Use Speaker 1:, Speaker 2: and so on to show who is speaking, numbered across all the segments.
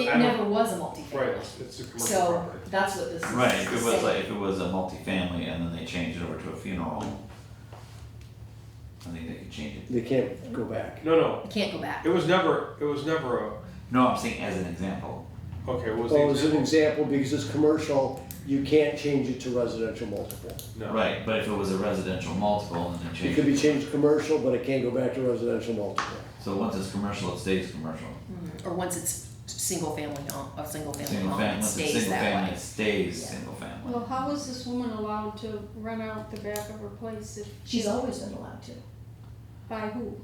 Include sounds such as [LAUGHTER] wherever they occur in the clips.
Speaker 1: It never was a multifamily.
Speaker 2: Right, it's a commercial
Speaker 1: So
Speaker 2: property.
Speaker 1: that's what this is.
Speaker 3: Right, if it was
Speaker 1: saying.
Speaker 3: like, if it was a multifamily and then they changed it over to a funeral, I think they could change it.
Speaker 4: They can't go back.
Speaker 2: No, no,
Speaker 1: You Can't go back.
Speaker 2: it was never, it was never a,
Speaker 3: No, I'm saying as an example.
Speaker 2: okay, what was the
Speaker 4: Well, as an
Speaker 2: example?
Speaker 4: example, because it's commercial, you can't change it to residential multiple.
Speaker 2: No.
Speaker 3: Right, but if it was a residential multiple and then
Speaker 4: It
Speaker 3: changed.
Speaker 4: could be changed commercial, but it can't go back to residential multiple.
Speaker 3: So once it's commercial, it stays commercial.
Speaker 1: Mm, Or once it's single family home, a single family
Speaker 3: Single
Speaker 1: home,
Speaker 3: family,
Speaker 1: it
Speaker 3: once it's
Speaker 1: stays
Speaker 3: single
Speaker 1: that
Speaker 3: family,
Speaker 1: way.
Speaker 3: it stays
Speaker 1: Yeah.
Speaker 3: single family.
Speaker 5: Well, how was this woman allowed to run out the back of her place if?
Speaker 1: She's always been allowed to.
Speaker 5: By who?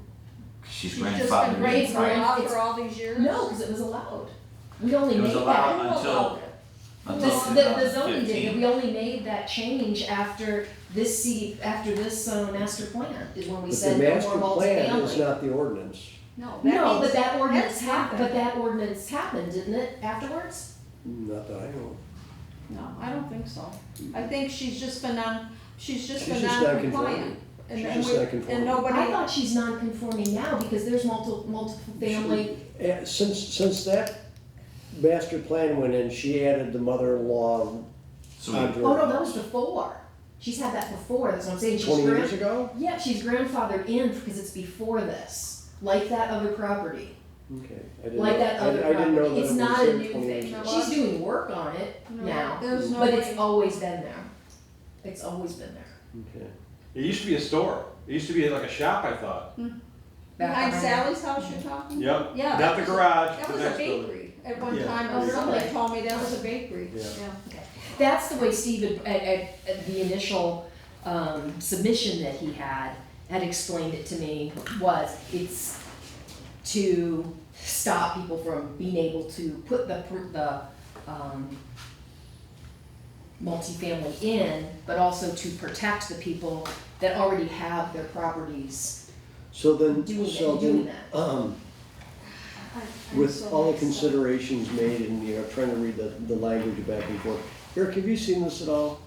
Speaker 3: She's
Speaker 5: She's just
Speaker 3: grandfathered
Speaker 5: been
Speaker 3: in,
Speaker 5: raised
Speaker 1: right?
Speaker 5: out for all these years?
Speaker 1: No, because it was allowed. We only
Speaker 3: It was
Speaker 1: made
Speaker 3: allowed
Speaker 1: that.
Speaker 3: until-
Speaker 1: The,
Speaker 3: until
Speaker 1: the, the zoning did,
Speaker 3: 2015.
Speaker 1: we only made that change after this C, after this, uh, master plan, is when we
Speaker 4: But the
Speaker 1: said no
Speaker 4: master
Speaker 1: more
Speaker 4: plan is
Speaker 1: multifamily.
Speaker 4: not the ordinance.
Speaker 5: No, that means.
Speaker 1: No, but that ordinance
Speaker 5: that's
Speaker 1: happened, but
Speaker 5: nothing.
Speaker 1: that ordinance happened, didn't it, afterwards?
Speaker 4: Not that I know.
Speaker 5: No, I don't think so. I think she's just been on, she's just
Speaker 4: She's
Speaker 5: been
Speaker 4: just
Speaker 5: non-compliant.
Speaker 4: non-conforming.
Speaker 5: And-
Speaker 4: She's
Speaker 5: and
Speaker 4: just
Speaker 5: we-
Speaker 4: non-conforming.
Speaker 5: And
Speaker 1: I
Speaker 5: nobody,
Speaker 1: thought she's non-conforming now because there's multiple, multiple family,
Speaker 4: Eh, Since, since that master plan went in, she added the mother-in-law
Speaker 3: So we-
Speaker 4: onto her.
Speaker 1: oh no, that was before. She's had that before, that's what I'm saying, she's
Speaker 4: Twenty years
Speaker 1: grand,
Speaker 4: ago?
Speaker 1: yeah, she's grandfathered in because it's before this, like that other property.
Speaker 4: Okay. I didn't
Speaker 1: like
Speaker 4: know-
Speaker 1: that
Speaker 4: I-
Speaker 1: other
Speaker 4: I didn't know
Speaker 1: property,
Speaker 4: that
Speaker 1: it's
Speaker 4: it was
Speaker 1: not a
Speaker 4: in
Speaker 1: new
Speaker 4: 20 years
Speaker 1: thing,
Speaker 4: ago.
Speaker 1: she's doing work on it now,
Speaker 5: no, there's no way.
Speaker 1: but it's always been there, it's always been there.
Speaker 4: Okay.
Speaker 2: It used to be a store, it used to be like a shop, I thought,
Speaker 1: Back
Speaker 5: Behind
Speaker 1: around.
Speaker 5: Sally's house you're talking?
Speaker 2: yep,
Speaker 5: Yeah.
Speaker 2: not the
Speaker 5: Oh, that was a-
Speaker 2: garage,
Speaker 5: That
Speaker 2: the
Speaker 5: was a
Speaker 2: next building.
Speaker 5: bakery at one
Speaker 2: Yeah.
Speaker 5: time,
Speaker 1: Oh,
Speaker 5: or somebody
Speaker 1: really?
Speaker 5: told me that was a bakery,
Speaker 4: Yeah.
Speaker 5: yeah.
Speaker 1: That's the way Steve had, at, at, at the initial, um, submission that he had, had explained it to me, was it's to stop people from being able to put the, pr- the, um, multifamily in, but also to protect the people that already have their properties
Speaker 4: So then,
Speaker 1: doing,
Speaker 4: so
Speaker 1: it- doing
Speaker 4: then,
Speaker 1: that.
Speaker 4: um,
Speaker 5: I- I'm
Speaker 4: with
Speaker 5: so
Speaker 4: all the
Speaker 5: mixed up.
Speaker 4: considerations made and, you know, trying to read the, the language back and forth. Eric, have you seen this at all?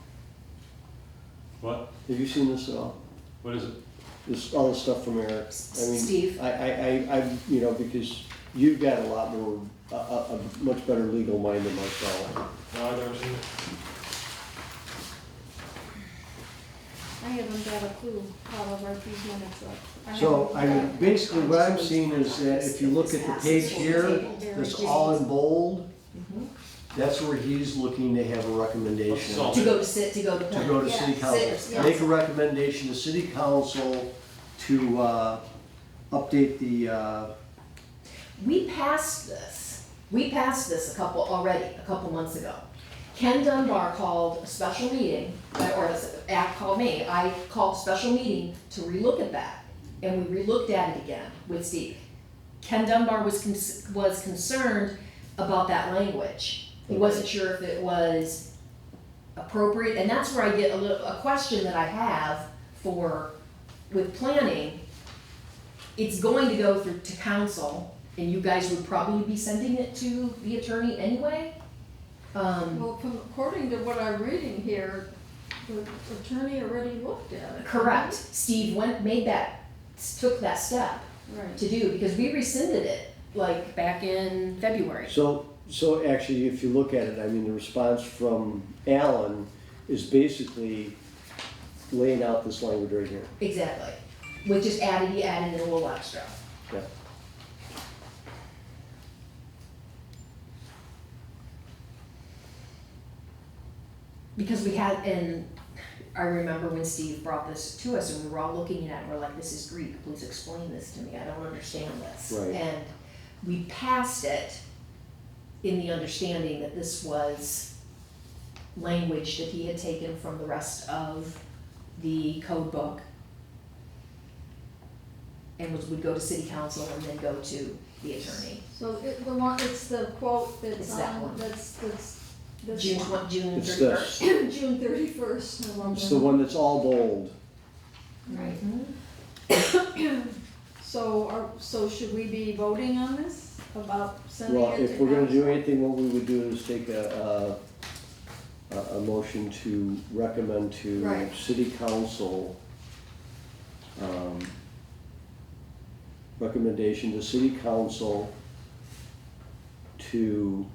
Speaker 2: What,
Speaker 4: Have you seen this at all?
Speaker 2: what is it?
Speaker 4: This, all the stuff from Eric? I mean,
Speaker 1: Steve,
Speaker 4: I, I, I, I, you know, because you've got a lot more, a, a, a much better legal mind than myself.
Speaker 2: No, I've never seen it.
Speaker 5: I haven't got a clue how to write these minutes up. I
Speaker 4: So, I
Speaker 5: haven't-
Speaker 4: mean, basically what I'm seeing is that if you look at the page here, that's all in bold,
Speaker 1: Mhm.
Speaker 4: that's where he's looking to have a recommendation.
Speaker 2: That's all.
Speaker 1: to go to sit, to go to.
Speaker 4: to go to city
Speaker 5: Yeah,
Speaker 1: sit-
Speaker 4: council.
Speaker 1: yeah.
Speaker 4: Make a recommendation to city council to, uh, update the, uh,
Speaker 1: We passed this, we passed this a couple, already, a couple months ago. Ken Dunbar called a special meeting, or this act called me, I called a special meeting to relook at that. And we relooked at it again with Steve. Ken Dunbar was, cons- was concerned about that language. He wasn't sure if it was appropriate, and that's where I get a little, a question that I have for, with planning. It's going to go through to council, and you guys would probably be sending it to the attorney anyway. Um,
Speaker 5: Well, from- according to what I'm reading here, the attorney already looked at it.
Speaker 1: correct, Steve went, made that, took that step
Speaker 5: Right.
Speaker 1: to do, because we rescinded it, like, back in February.
Speaker 4: so, so actually, if you look at it, I mean, the response from Alan is basically laying out this language right here.
Speaker 1: Exactly, which is added, he added a little extra.
Speaker 4: Yeah.
Speaker 1: Because we had, and I remember when Steve brought this to us and we were all looking at it, we're like, this is Greek, please explain this to me, I don't understand this.
Speaker 4: Right.
Speaker 1: And we passed it in the understanding that this was language that he had taken from the rest of the code book and was, would go to city council and then go to the attorney.
Speaker 5: So it, the one, it's the quote
Speaker 1: It's
Speaker 5: that's
Speaker 1: that
Speaker 5: on,
Speaker 1: one.
Speaker 5: that's, that's, that's.
Speaker 1: June twen- June
Speaker 4: It's
Speaker 1: thirty
Speaker 4: this.
Speaker 1: first.
Speaker 5: [COUGHS] June thirty-first, I
Speaker 4: It's the one that's all bold.
Speaker 1: Right.
Speaker 5: So are, so should we be voting on this about sending
Speaker 4: Well,
Speaker 5: it to?
Speaker 4: if we're gonna do
Speaker 5: council?
Speaker 4: anything, what we would do is take a, a, a, a motion to recommend to
Speaker 5: Right.
Speaker 4: city council, um, recommendation to city council to